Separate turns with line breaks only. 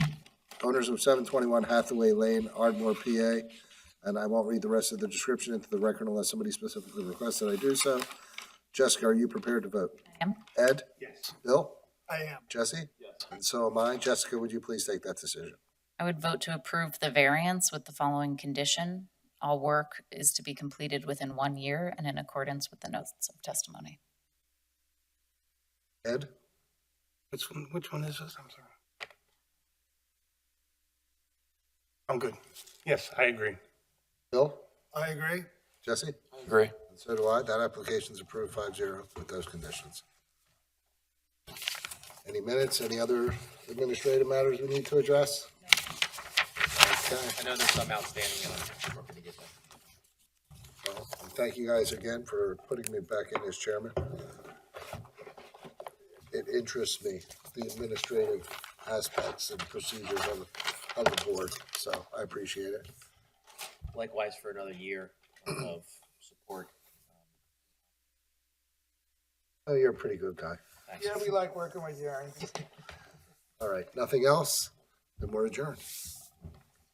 owners of seven twenty-one Hathaway Lane, Ardmore, PA. And I won't read the rest of the description into the record unless somebody specifically requests that I do so. Jessica, are you prepared to vote?
am.
Ed?
Yes.
Bill?
I am.
Jesse?
Yes.
And so am I. Jessica, would you please take that decision?
I would vote to approve the variance with the following condition. All work is to be completed within one year and in accordance with the notes of testimony.
Ed?
Which one, which one is this? I'm sorry. I'm good. Yes, I agree.
Bill?
I agree.
Jesse?
Agree.
And so do I. That application's approved five zero with those conditions. Any minutes, any other administrative matters we need to address? Okay.
I know there's some outstanding, and I'm sure we're gonna get that.
Well, and Thank you guys again for putting me back in as chairman. It interests me, the administrative aspects and procedures of, the- of the board, so I appreciate it.
Likewise for another year of support.
Oh, you're a pretty good guy.
Thanks.
Yeah, we like working with you, Aaron.
All right, nothing else? Then we're adjourned.